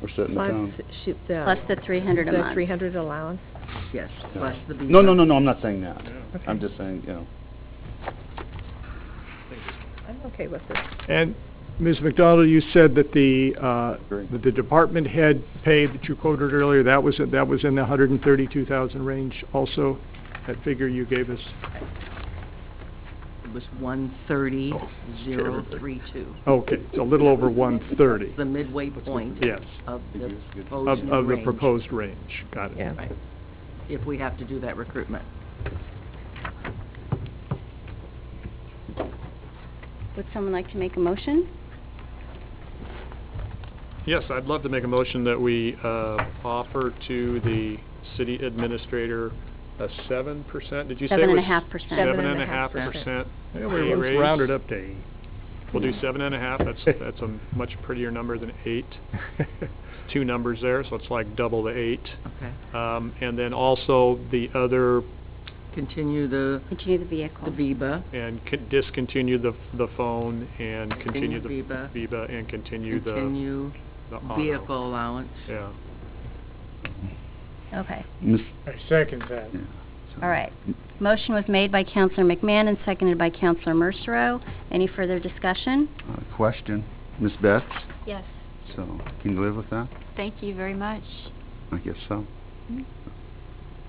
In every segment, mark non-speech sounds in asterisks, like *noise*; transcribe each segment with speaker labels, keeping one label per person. Speaker 1: We're setting the
Speaker 2: Plus,
Speaker 1: tone.
Speaker 2: she, the...
Speaker 3: Plus the 300 a
Speaker 2: the
Speaker 3: month.
Speaker 2: 300 allowance?
Speaker 4: Yes,
Speaker 1: Yeah.
Speaker 4: plus the
Speaker 1: No, no,
Speaker 4: beaver.
Speaker 1: no, no, I'm not saying that.
Speaker 2: Okay.
Speaker 1: I'm just saying, you know,
Speaker 2: I'm okay with this.
Speaker 5: And Ms. McDonald, you said that the, uh,
Speaker 1: Agree.
Speaker 5: that the department head pay that you quoted earlier, that was, that was in the 132,000 range also, that figure you gave us?
Speaker 4: It was one thirty, zero three two.
Speaker 5: Okay, it's a little over 130
Speaker 4: The midway point.
Speaker 5: Yes.
Speaker 4: Of
Speaker 1: Yes,
Speaker 4: the
Speaker 1: good.
Speaker 5: of,
Speaker 4: proposed
Speaker 5: of the
Speaker 4: range,
Speaker 5: proposed range. Got it.
Speaker 2: Yeah.
Speaker 4: Right. If we have to do that recruitment.
Speaker 3: Would someone like to make a motion?
Speaker 6: Yes, I'd love to make a motion that we uh, offer to the city administrator a seven percent, did you say? it
Speaker 3: Seven and a
Speaker 6: was
Speaker 3: half percent.
Speaker 6: Seven and a half percent
Speaker 5: Yeah,
Speaker 6: pay
Speaker 5: we- let's
Speaker 6: raise.
Speaker 5: round it up to eight.
Speaker 6: We'll do seven and a half, that's, that's a much prettier number than eight. Two numbers there, so it's like double the eight.
Speaker 4: Okay.
Speaker 6: Um, And then also the other,
Speaker 4: Continue the,
Speaker 3: Continue the vehicle.
Speaker 4: the VIBA,
Speaker 6: and con- discontinue the, the phone and
Speaker 4: Continue
Speaker 6: continue the.
Speaker 4: VIBA.
Speaker 6: VIBA and continue the.
Speaker 4: continue
Speaker 6: the auto.
Speaker 4: vehicle allowance.
Speaker 6: Yeah.
Speaker 3: Okay,
Speaker 1: Miss,
Speaker 5: I second that.
Speaker 1: yeah.
Speaker 3: all right. Motion was made by Counselor McMahon and seconded by Counselor Mercero. Any further discussion?
Speaker 1: Uh, Question, Miss Betts,
Speaker 3: Yes.
Speaker 1: so can you live with that?
Speaker 3: Thank you very much.
Speaker 1: I guess so.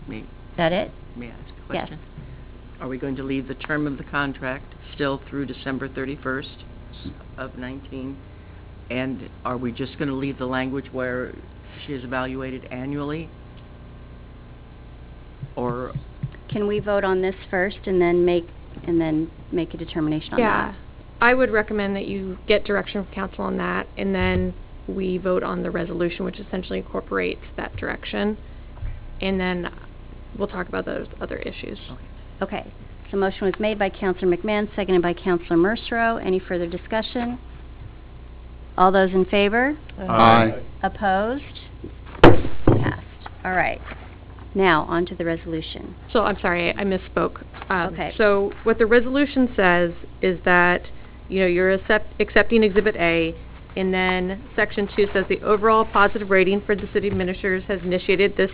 Speaker 4: May,
Speaker 3: Is that it?
Speaker 4: may I ask a
Speaker 3: Yes.
Speaker 4: question? Are we going to leave the term of the contract still through December 31st of 19? And are we just going to leave the language where she is evaluated annually? Or,
Speaker 3: Can we vote on this first and then make, and then make a determination on
Speaker 7: Yeah,
Speaker 3: that?
Speaker 7: I would recommend that you get direction from council on that, and then we vote on the resolution, which essentially incorporates that direction, and then we'll talk about those other issues.
Speaker 3: Okay, so motion was made by Counselor McMahon, seconded by Counselor Mercero. Any further discussion? All those in favor?
Speaker 1: Aye.
Speaker 3: Opposed? Passed. All right. Now, on to the resolution.
Speaker 7: So, I'm sorry, I misspoke. Um,
Speaker 3: Okay.
Speaker 7: So, what the resolution says is that, you know, you're accept- accepting Exhibit A, and then Section 2 says, "The overall positive rating for the city administrators has initiated this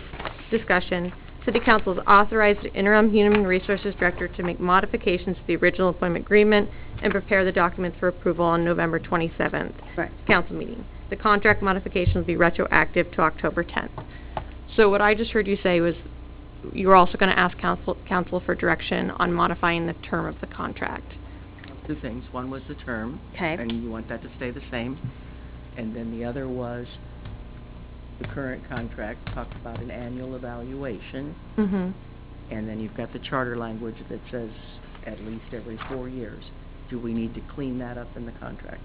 Speaker 7: discussion. City Council has authorized the interim Human Resources Director to make modifications to the original employment agreement and prepare the documents for approval on November 27th
Speaker 3: Right.
Speaker 7: council meeting. The contract modification will be retroactive to October 10th." So what I just heard you say was you were also going to ask council, council for direction on modifying the term of the contract.
Speaker 4: two things. One was the term.
Speaker 3: Okay.
Speaker 4: And you want that to stay the same. And then the other was the current contract talked about an annual evaluation.
Speaker 7: Mm-hmm.
Speaker 4: And then you've got the charter language that says at least every four years. Do we need to clean that up in the contract?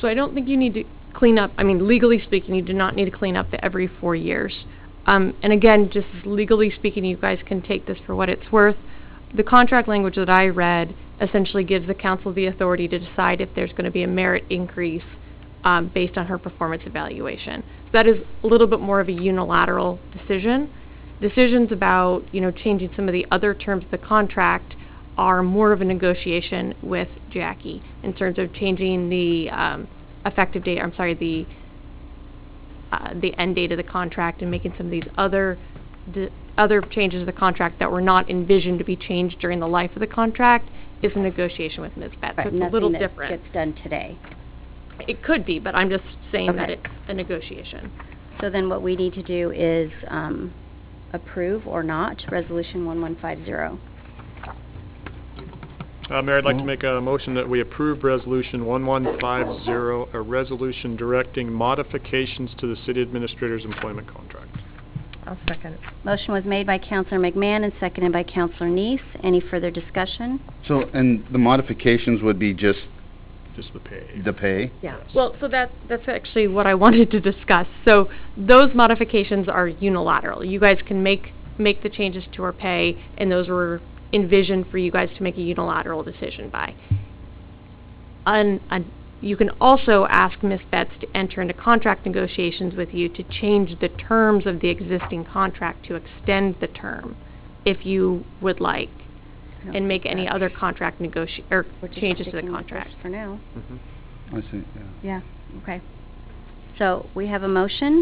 Speaker 7: So I don't think you need to clean up, I mean, legally speaking, you do not need to clean up the every four years. Um, and again, just legally speaking, you guys can take this for what it's worth. The contract language that I read essentially gives the council the authority to decide if there's going to be a merit increase um, based on her performance evaluation. So that is a little bit more of a unilateral decision. Decisions about, you know, changing some of the other terms of the contract are more of a negotiation with Jackie in terms of changing the um, effective date, I'm sorry, the, uh, the end date of the contract and making some of these other, the other changes to the contract that were not envisioned to be changed during the life of the contract is a negotiation with Ms. Betts. So
Speaker 3: Right,
Speaker 7: It's a little
Speaker 3: Nothing that
Speaker 7: different.
Speaker 3: gets done today.
Speaker 7: It could be, but I'm just saying that
Speaker 3: Okay.
Speaker 7: it's a negotiation.
Speaker 3: So then what we need to do is um, approve or not Resolution 1150.
Speaker 6: Uh, Mayor, I'd like to
Speaker 1: Mhm.
Speaker 6: make a motion that we approve Resolution 1150, a resolution directing modifications to the city administrator's employment contract.
Speaker 2: I'll second.
Speaker 3: Motion was made by Counselor McMahon and seconded by Counselor Neese. Any further discussion?
Speaker 1: So, and the modifications would be just
Speaker 6: Just the pay.
Speaker 1: the pay?
Speaker 2: Yeah.
Speaker 7: Well, so that, that's actually what I *laughs* wanted to discuss. So those modifications are unilateral. You guys can make, make the changes to our pay, and those were envisioned for you guys to make a unilateral decision by. Un, un- you can also ask Ms. Betts to enter into contract negotiations with you to change the terms of the existing contract to extend the term, if you would like,
Speaker 3: I don't
Speaker 7: and make
Speaker 3: think
Speaker 7: any
Speaker 3: that-
Speaker 7: other contract negoti, or
Speaker 3: We're just
Speaker 7: changes to the
Speaker 3: sticking with this
Speaker 7: contract.
Speaker 3: For now.
Speaker 1: I see, yeah.
Speaker 3: Yeah, okay. So we have a motion.